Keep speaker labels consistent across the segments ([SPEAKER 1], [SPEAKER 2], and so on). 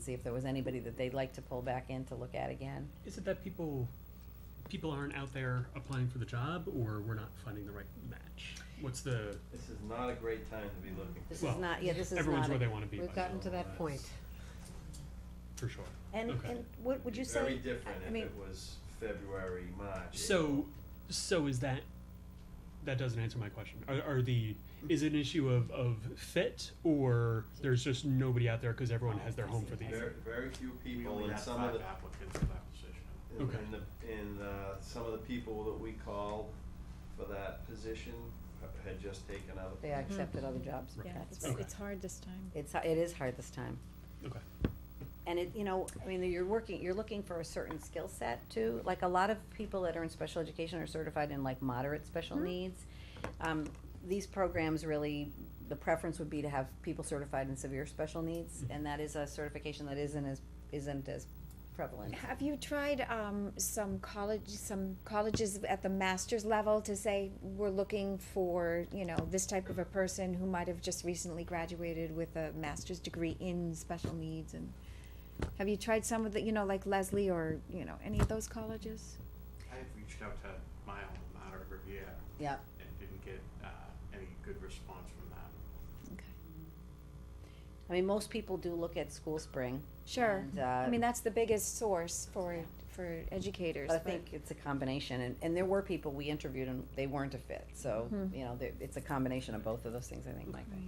[SPEAKER 1] see if there was anybody that they'd like to pull back in to look at again.
[SPEAKER 2] Is it that people, people aren't out there applying for the job, or we're not finding the right match? What's the,
[SPEAKER 3] This is not a great time to be looking.
[SPEAKER 1] This is
[SPEAKER 2] Well,
[SPEAKER 1] not, yeah, this is not.
[SPEAKER 2] everyone's where
[SPEAKER 1] a-
[SPEAKER 2] they wanna be
[SPEAKER 4] We've
[SPEAKER 2] by now,
[SPEAKER 4] gotten to that point.
[SPEAKER 2] for sure.
[SPEAKER 1] And,
[SPEAKER 2] Okay.
[SPEAKER 1] and what would you say?
[SPEAKER 3] Very different
[SPEAKER 1] I
[SPEAKER 3] if
[SPEAKER 1] mean,
[SPEAKER 3] it was February, March.
[SPEAKER 2] So, so is that, that doesn't answer my question. Are, are the, is it an issue of, of fit, or there's just nobody out there because everyone has their home for the
[SPEAKER 3] Very,
[SPEAKER 2] year?
[SPEAKER 3] very few
[SPEAKER 5] We
[SPEAKER 3] people
[SPEAKER 5] only
[SPEAKER 3] and
[SPEAKER 5] had
[SPEAKER 3] some of
[SPEAKER 5] five
[SPEAKER 3] the,
[SPEAKER 5] applicants for that position.
[SPEAKER 3] and
[SPEAKER 2] Okay.
[SPEAKER 3] and the, and, uh, some of the people that we called for that position ha- had just taken other.
[SPEAKER 4] Mm-hmm.
[SPEAKER 1] They accepted other jobs.
[SPEAKER 2] Right.
[SPEAKER 6] Yeah,
[SPEAKER 1] That's-
[SPEAKER 6] it's,
[SPEAKER 2] Okay.
[SPEAKER 6] it's hard this time.
[SPEAKER 1] It's, it is hard this time.
[SPEAKER 2] Okay,
[SPEAKER 1] And it, you know, I mean, you're working, you're looking for a certain skill set too. Like a lot of people that are in special education are certified in like moderate special
[SPEAKER 4] Mm-hmm.
[SPEAKER 1] needs. Um, these programs really, the preference would be to have people certified in severe special needs,
[SPEAKER 2] Mm-hmm.
[SPEAKER 1] and that is a certification that isn't as, isn't as prevalent.
[SPEAKER 6] Have you tried, um, some college, some colleges at the master's level to say, we're looking for, you know, this type of a person who might have just recently graduated with a master's degree in special needs and have you tried some of the, you know, like Leslie or, you know, any of those colleges?
[SPEAKER 5] I have reached out to my alma mater, Riviera,
[SPEAKER 1] Yeah,
[SPEAKER 5] and didn't get, uh, any good response from them.
[SPEAKER 6] Okay.
[SPEAKER 1] I mean, most people do look at School Spring.
[SPEAKER 6] Sure.
[SPEAKER 1] And, uh,
[SPEAKER 6] I mean, that's the biggest source for, for educators,
[SPEAKER 1] But I
[SPEAKER 6] but.
[SPEAKER 1] think it's a combination, and, and there were people we interviewed and they weren't a fit, so,
[SPEAKER 6] Mhm.
[SPEAKER 1] you know, there, it's a combination of both of those things, I think, Mike.
[SPEAKER 6] Right.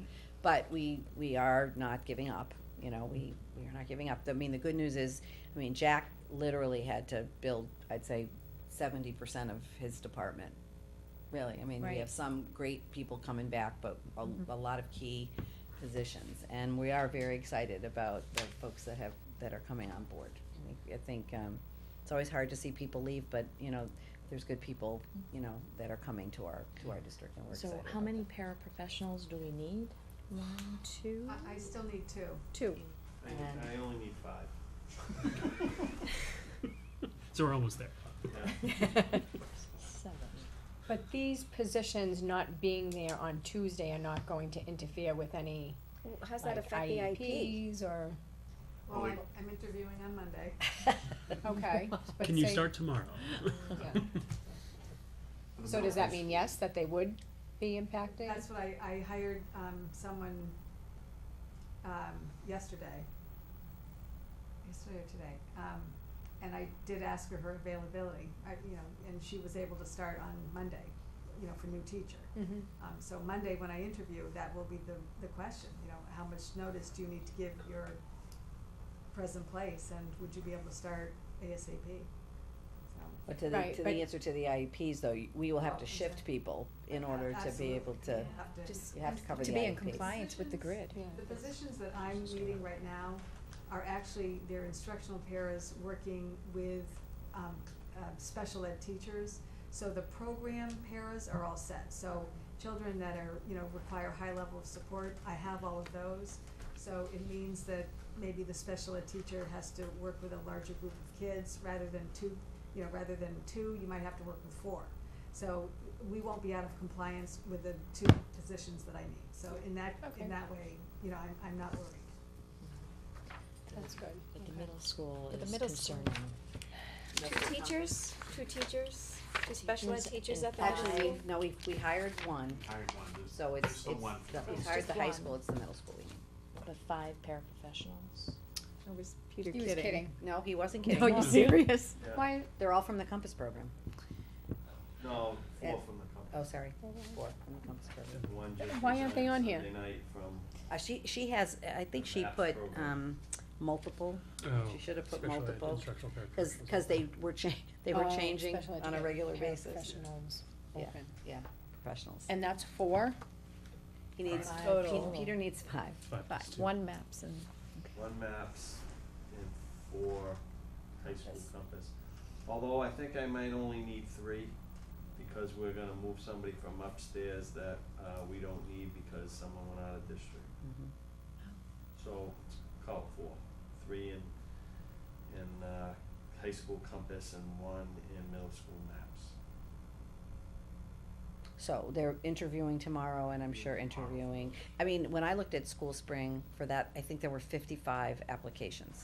[SPEAKER 1] But we, we are not giving up, you know, we, we are not giving up. I mean, the good news is, I mean, Jack literally had to build, I'd say, seventy percent of his department. Really, I mean, we
[SPEAKER 6] Right.
[SPEAKER 1] have some great people coming back, but a,
[SPEAKER 7] Mm-hmm.
[SPEAKER 6] Mhm.
[SPEAKER 1] a lot of key positions. And we are very excited about the folks that have, that are coming on board. I think, I think, um, it's always hard to see people leave, but, you know, there's good people, you know, that are coming to our, to our district and we're excited
[SPEAKER 7] So
[SPEAKER 1] about
[SPEAKER 7] how
[SPEAKER 1] that.
[SPEAKER 7] many paraprofessionals do we need? One, two?
[SPEAKER 8] I, I still need two.
[SPEAKER 6] Two.
[SPEAKER 3] I,
[SPEAKER 1] And-
[SPEAKER 3] I only need five.
[SPEAKER 2] so we're almost there.
[SPEAKER 7] Seven.
[SPEAKER 8] But these positions not being there on Tuesday are not going to interfere with any
[SPEAKER 6] How's that
[SPEAKER 8] like
[SPEAKER 6] affect the IP?
[SPEAKER 8] IEPs or,
[SPEAKER 9] Well, I'm, I'm interviewing on Monday.
[SPEAKER 8] okay. but
[SPEAKER 2] Can you
[SPEAKER 8] say-
[SPEAKER 2] start tomorrow?
[SPEAKER 8] Yeah. So does that mean yes, that they would be impacted?
[SPEAKER 9] That's what I, I hired, um, someone, um, yesterday. Yesterday or today, um, and I did ask her her availability, I, you know, and she was able to start on Monday, you know, for new teacher.
[SPEAKER 1] Mm.
[SPEAKER 8] Mhm.
[SPEAKER 9] Um, so Monday, when I interview, that will be the, the question, you know, how much notice do you need to give your present place, and would you be able to start ASAP? So.
[SPEAKER 1] But to the,
[SPEAKER 8] Right,
[SPEAKER 1] to the
[SPEAKER 8] but-
[SPEAKER 1] answer to the IEPs though, y- we will have
[SPEAKER 9] Well,
[SPEAKER 1] to shift
[SPEAKER 9] exact-
[SPEAKER 1] people in order to be
[SPEAKER 9] Absolutely.
[SPEAKER 1] able to,
[SPEAKER 9] You have to-
[SPEAKER 6] Just
[SPEAKER 1] you have to cover
[SPEAKER 7] To
[SPEAKER 1] the IEPs.
[SPEAKER 7] be in compliance with the
[SPEAKER 9] Decisions.
[SPEAKER 7] grid.
[SPEAKER 8] Yeah.
[SPEAKER 9] The positions that I'm leading right now are actually, they're instructional paras working with, um, uh, special ed teachers. So the program paras are all set, so children that are, you know, require high level of support, I have all of those. So it means that maybe the special ed teacher has to work with a larger group of kids rather than two, you know, rather than two, you might have to work with four. So we won't be out of compliance with the two positions that I need, so in that,
[SPEAKER 8] Okay.
[SPEAKER 9] in that way, you know, I'm, I'm not worried.
[SPEAKER 8] That's good.
[SPEAKER 7] But the
[SPEAKER 8] Okay.
[SPEAKER 7] middle school
[SPEAKER 6] But the
[SPEAKER 7] is
[SPEAKER 6] middle school.
[SPEAKER 7] concerning.
[SPEAKER 4] Two teachers, two teachers, two special ed
[SPEAKER 7] Teachers
[SPEAKER 4] teachers
[SPEAKER 7] and
[SPEAKER 4] at the high
[SPEAKER 1] Actually,
[SPEAKER 4] school.
[SPEAKER 1] we've- no, we, we hired one,
[SPEAKER 5] Hired one, there's,
[SPEAKER 1] so
[SPEAKER 5] there's
[SPEAKER 1] it's, it's,
[SPEAKER 5] still one. for
[SPEAKER 1] the-
[SPEAKER 5] the
[SPEAKER 1] we
[SPEAKER 5] business.
[SPEAKER 1] hired the high
[SPEAKER 6] one.
[SPEAKER 1] school, it's the middle school we need.
[SPEAKER 7] But five paraprofessionals.
[SPEAKER 6] I was Peter
[SPEAKER 8] He was kidding.
[SPEAKER 1] No, he wasn't kidding.
[SPEAKER 6] Are you serious?
[SPEAKER 3] Yeah.
[SPEAKER 8] Why,
[SPEAKER 1] They're all from the Compass program.
[SPEAKER 3] No,
[SPEAKER 1] Yeah.
[SPEAKER 3] four from the company.
[SPEAKER 1] Oh, sorry, four from the Compass program.
[SPEAKER 3] One just
[SPEAKER 8] Why aren't they
[SPEAKER 3] resigned
[SPEAKER 8] on here?
[SPEAKER 3] Sunday night from,
[SPEAKER 1] Uh, she, she has, I think she
[SPEAKER 3] Math
[SPEAKER 1] put,
[SPEAKER 3] program.
[SPEAKER 1] um, multiple,
[SPEAKER 2] Oh,
[SPEAKER 1] She should have put
[SPEAKER 2] special ed
[SPEAKER 1] multiple,
[SPEAKER 2] instructional paraprofessionals.
[SPEAKER 1] cause, cause they were cha- they were
[SPEAKER 8] Oh,
[SPEAKER 1] changing
[SPEAKER 8] special
[SPEAKER 1] on a
[SPEAKER 8] education
[SPEAKER 1] regular basis.
[SPEAKER 8] paraprofessionals
[SPEAKER 1] Yeah.
[SPEAKER 8] open.
[SPEAKER 1] Yeah, professionals.
[SPEAKER 8] And that's four?
[SPEAKER 1] He needs,
[SPEAKER 7] Five
[SPEAKER 1] Pe-
[SPEAKER 7] total.
[SPEAKER 1] Peter needs five.
[SPEAKER 2] Five plus two.
[SPEAKER 6] One maps and.
[SPEAKER 3] one maps and four high school compass. Although I think I might only need three, because we're gonna move somebody from upstairs that, uh, we don't need because someone went out of district.
[SPEAKER 7] Mm-hmm.
[SPEAKER 1] Mhm.
[SPEAKER 3] So, call it four, three in, in, uh, high school compass and one in middle school maps.
[SPEAKER 1] So they're interviewing tomorrow and I'm sure interviewing, I mean, when I looked at School Spring for that, I think there were fifty-five applications.